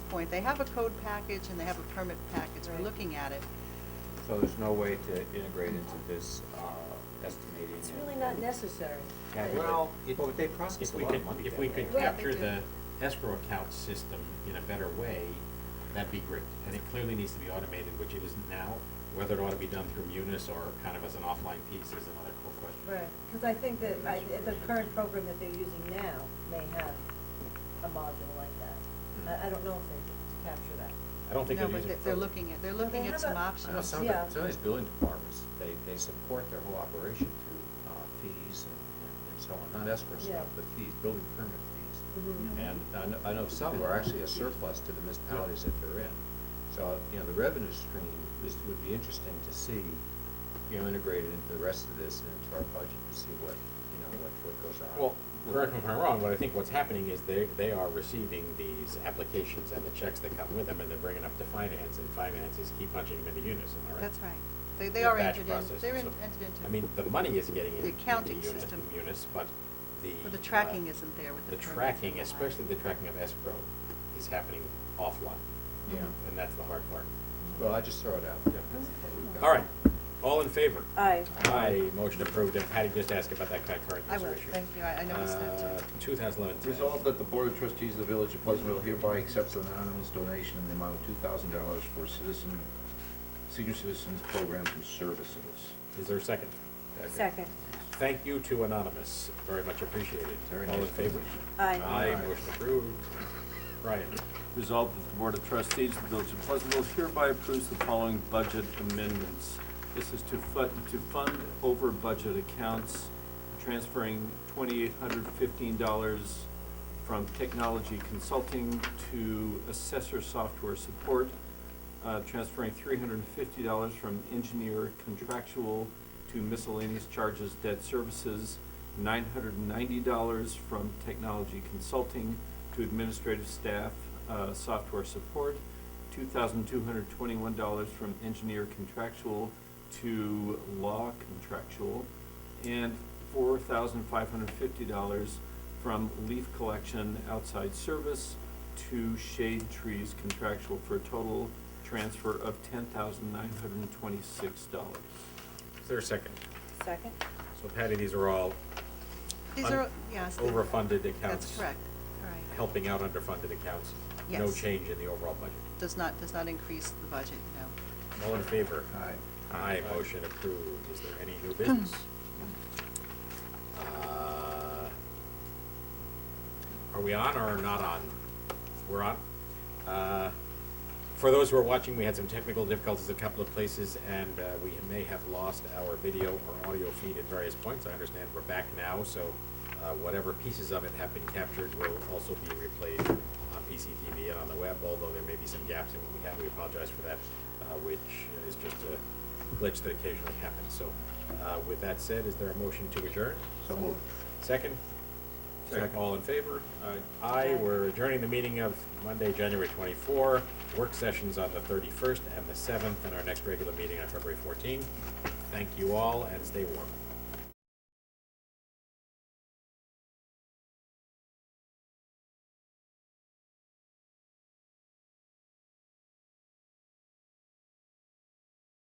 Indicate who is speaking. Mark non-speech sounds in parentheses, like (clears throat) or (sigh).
Speaker 1: point, they have a code package and they have a permit package,
Speaker 2: Right.
Speaker 1: we're looking at it.
Speaker 3: So there's no way to integrate into this uh, estimating.
Speaker 2: It's
Speaker 3: and-
Speaker 2: really not necessary.
Speaker 3: Yeah,
Speaker 4: Well,
Speaker 3: but-
Speaker 4: if-
Speaker 3: Well, but they process
Speaker 4: If
Speaker 3: a
Speaker 4: we
Speaker 3: lot
Speaker 4: could,
Speaker 3: of money
Speaker 4: if
Speaker 3: that
Speaker 4: we
Speaker 3: way.
Speaker 4: could
Speaker 2: Right.
Speaker 4: capture
Speaker 1: They
Speaker 4: the
Speaker 1: do.
Speaker 4: escrow account system in a better way, that'd be great. And it clearly needs to be automated, which it isn't now. Whether it ought to be done through Munis or kind of as an offline piece is another cool question.
Speaker 2: Right, because I think that, I, the current program that they're using now may have a module like that. I, I don't know if they capture that.
Speaker 4: I don't think
Speaker 1: No,
Speaker 4: they're
Speaker 1: but
Speaker 4: using.
Speaker 1: they- they're looking at, they're
Speaker 2: Well, they
Speaker 1: looking at
Speaker 2: have
Speaker 1: some
Speaker 2: a-
Speaker 3: I know
Speaker 1: options.
Speaker 3: some of, the-
Speaker 2: Yeah.
Speaker 3: some of these building departments, they, they support their whole operation through uh, fees and, and so on, not escrow
Speaker 2: Yeah.
Speaker 3: stuff, but fees, building permit fees.
Speaker 2: Mhm.
Speaker 3: And I know, I know some are actually a surplus to the municipalities that they're in. So, you know, the revenue stream is, would be interesting to see, you know, integrated into the rest of this and into our budget to see what, you know, what, what goes on.
Speaker 4: Well, correct me if I'm wrong, but I think what's happening is they, they are receiving these applications and the checks that come with them, and they're bringing up to finance, and finance is keep punching them into Unis, am I right?
Speaker 1: That's right. They, they
Speaker 4: the
Speaker 1: are
Speaker 4: batch
Speaker 1: entered in,
Speaker 4: process
Speaker 1: they're
Speaker 4: and
Speaker 1: in-
Speaker 4: so-
Speaker 1: entered into.
Speaker 4: I mean, the money is
Speaker 1: The
Speaker 4: getting into the
Speaker 1: accounting
Speaker 4: units,
Speaker 1: system.
Speaker 4: units, but the.
Speaker 1: But the tracking
Speaker 4: uh,
Speaker 1: isn't there with the
Speaker 4: The
Speaker 1: permits and
Speaker 4: tracking,
Speaker 1: the like.
Speaker 4: especially the tracking of escrow, is happening offline,
Speaker 3: Yeah,
Speaker 4: and that's the hard part.
Speaker 3: well, I just throw it out there. That's what we've got.
Speaker 4: All right, all in favor?
Speaker 1: Uh,
Speaker 2: Aye.
Speaker 4: Aye, motion approved, and Patty just asked about that concurrent
Speaker 1: I
Speaker 4: user
Speaker 1: will,
Speaker 4: issue. Uh,
Speaker 1: thank you, I, I noticed that too.
Speaker 4: Two thousand eleven ten.
Speaker 5: Resolved that the Board of Trustees of the Village of Pleasantville hereby accepts an anonymous donation in the amount of two thousand dollars for citizen, senior citizens programs and services.
Speaker 4: Is there a second?
Speaker 2: Second.
Speaker 4: Thank you to Anonymous, very much appreciated.
Speaker 5: Very
Speaker 4: All in
Speaker 5: nice.
Speaker 4: favor?
Speaker 2: Aye.
Speaker 4: Aye,
Speaker 5: Aye.
Speaker 4: motion approved. Ryan,
Speaker 6: Resolved that the Board of Trustees of the Village of Pleasantville hereby approves the following budget amendments. This is to fund, to fund over budget accounts, transferring twenty-eight hundred fifteen dollars from technology consulting to assessor software support, uh, transferring three hundred and fifty dollars from engineer contractual to miscellaneous charges, debt services, nine hundred and ninety dollars from technology consulting to administrative staff, uh, software support, two thousand two hundred twenty-one dollars from engineer contractual to law contractual, and four thousand five hundred fifty dollars from leaf collection outside service to shade trees contractual for a total transfer of ten thousand nine hundred and twenty-six dollars.
Speaker 4: is there a second?
Speaker 2: Second?
Speaker 4: So Patty, these are all
Speaker 1: These
Speaker 4: Un-
Speaker 1: are, yes. the-
Speaker 4: overfunded accounts.
Speaker 1: That's correct, all right.
Speaker 4: Helping out underfunded accounts. No
Speaker 1: Yes.
Speaker 4: change in the overall budget.
Speaker 1: Does not, does not increase the budget, no.
Speaker 4: All in favor?
Speaker 5: Aye.
Speaker 4: Aye, motion approved. Is there any new
Speaker 1: (clears throat)
Speaker 4: business? Uh, Are we on or not on? We're on. Uh, For those who are watching, we had some technical difficulties at a couple of places, and uh, we may have lost our video or audio feed at various points. I understand we're back now, so uh, whatever pieces of it have been captured will also be replayed on PCTV and on the web, although there may be some gaps in what we have. We apologize for that, uh, which is just a glitch that occasionally happens. So uh, with that said, is there a motion to adjourn?
Speaker 5: So moved.
Speaker 4: Second?
Speaker 5: Second.
Speaker 4: All in favor? Aye, we're adjourning the meeting of Monday, January 24. Work sessions on the 31st and the 7th, and our next regular meeting on February 14. Thank you all, and stay warm.